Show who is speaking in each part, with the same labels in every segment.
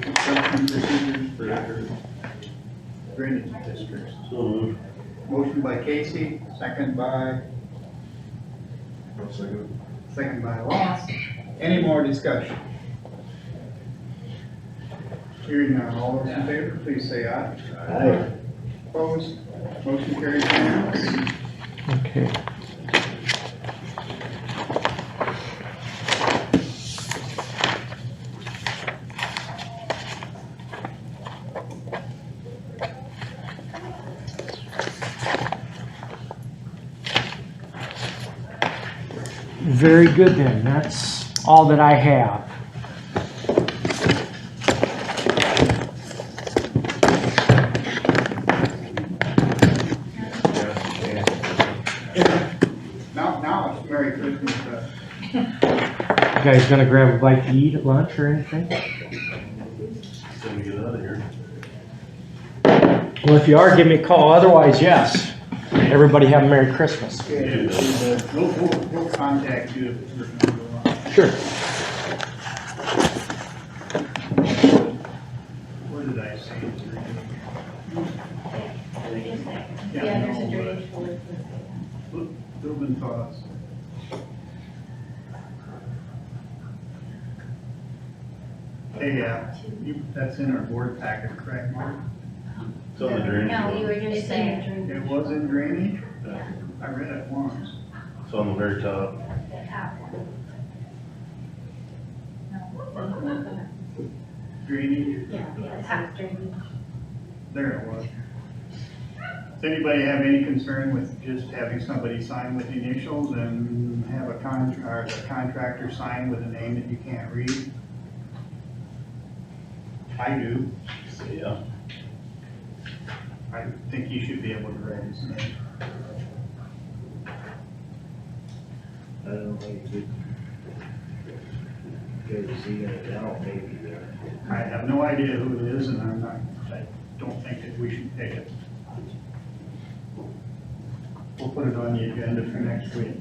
Speaker 1: Construction procedures for drainage districts.
Speaker 2: So moved.
Speaker 1: Motion by Casey, second by,
Speaker 2: Second.
Speaker 1: second by Ross. Any more discussion? Hearing none, all those in favor, please say aye.
Speaker 2: Aye.
Speaker 1: Opposed, motion carries unanimously.
Speaker 3: Okay. Very good then, that's all that I have.
Speaker 1: Now, now it's Merry Christmas, uh,
Speaker 3: You guys gonna grab a bite to eat at lunch or anything?
Speaker 2: Then we get out of here.
Speaker 3: Well, if you are, give me a call, otherwise, yes. Everybody have a Merry Christmas.
Speaker 1: okay, we'll, we'll, we'll contact you if there's another one.
Speaker 3: Sure.
Speaker 1: What did I say?
Speaker 4: Yeah, there's a drainage board.
Speaker 1: Reuben thoughts. Hey, uh, you, that's in our board packet, correct, Mark?
Speaker 2: It's on the drainage.
Speaker 4: No, you
Speaker 2: board.
Speaker 4: were just saying.
Speaker 1: It was in drainage?
Speaker 2: Yeah.
Speaker 1: I read it once.
Speaker 2: It's on the very top.
Speaker 4: Yeah,
Speaker 1: Drainage,
Speaker 4: yeah, it's half drainage.
Speaker 1: there it was. Does anybody have any concern with just having somebody sign with initials and have a con, or the contractor sign with a name that you can't read? I do.
Speaker 2: Yeah.
Speaker 1: I think you should be able to read his name.
Speaker 5: I don't think it. Because he got down maybe there.
Speaker 1: I have no idea who it is, and I'm not, I don't think that we should pick it. We'll put it on the agenda for next week.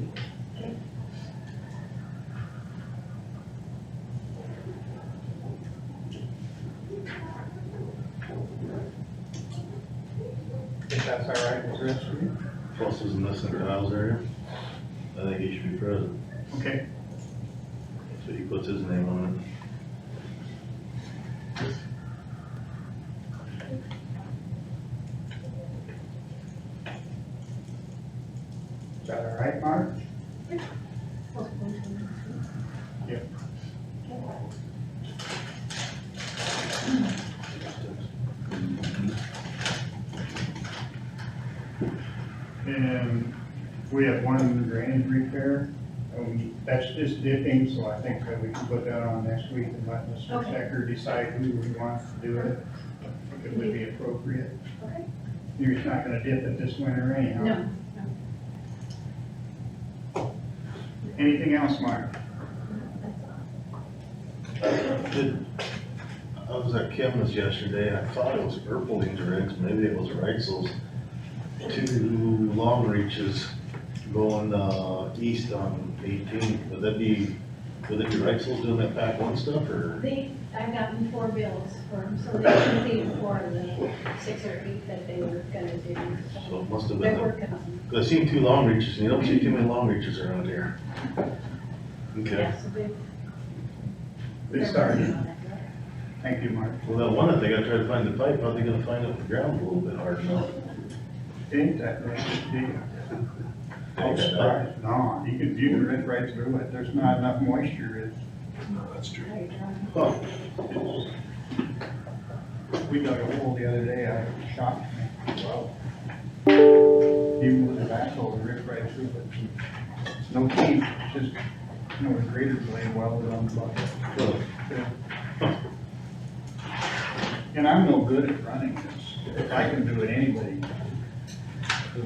Speaker 1: If that's all right with the rest of you?
Speaker 2: Plus is in this in Kyle's area. I think he should be present.
Speaker 1: Okay,
Speaker 2: So he puts his name on
Speaker 1: is that all right, Mark? And we have one drainage repair, um, that's just dipping, so I think that we can put that on next week and let Mr.
Speaker 4: Okay.
Speaker 1: Stecker decide who he wants to do it, if it would be appropriate.
Speaker 4: Okay.
Speaker 1: You're just not gonna dip it this winter anyhow.
Speaker 4: No,
Speaker 1: Anything else, Mark?
Speaker 2: it. Did- I was at Kevin's yesterday. I thought it was Erpeling's rigs. Maybe it was Reitzel's. Two long reaches going, uh, east on eighteen. Would that be, would it be Reitzel's doing that pack one stuff or?
Speaker 4: they, I've gotten four bills for them, so they completed four of the six or eight that they were gonna do.
Speaker 2: So
Speaker 4: so
Speaker 2: it must have been.
Speaker 4: They're
Speaker 2: the-
Speaker 4: working on
Speaker 2: I seen two long reaches, and you don't see too many long reaches around here.
Speaker 4: it.
Speaker 2: Okay,
Speaker 4: Yeah, so they-
Speaker 1: They
Speaker 4: they're
Speaker 1: started.
Speaker 4: working on it.
Speaker 1: Thank you, Mark.
Speaker 2: well, that one, if they gotta try to find the pipe, how are they gonna find up the ground a little bit hard enough?
Speaker 1: Dave, that was Dave. Oh, sorry. No, you could, you can rip right through it. There's not enough moisture.
Speaker 4: They're drawing.
Speaker 2: Huh,
Speaker 1: It's- We dug a hole the other day, I shocked me. Wow. Even with a backhoe, it ripped right through it. It's No teeth, just, you know, a grader blade welded on the bucket.
Speaker 2: huh.
Speaker 1: And I'm no good at running this. If I can do it, anybody can.
Speaker 4: Do you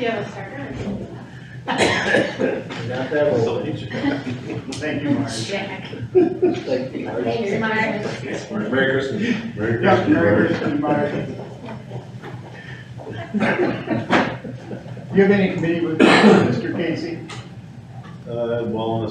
Speaker 4: have a starter?
Speaker 2: So each-
Speaker 1: Thank you, Mark.
Speaker 4: Jack. Thanks, Mark.
Speaker 2: Merry Christmas. Merry
Speaker 1: Yeah, Merry
Speaker 2: Christmas.
Speaker 1: Christmas, Mark. Do you have any committee with Mr. Casey?
Speaker 2: Uh, well, on a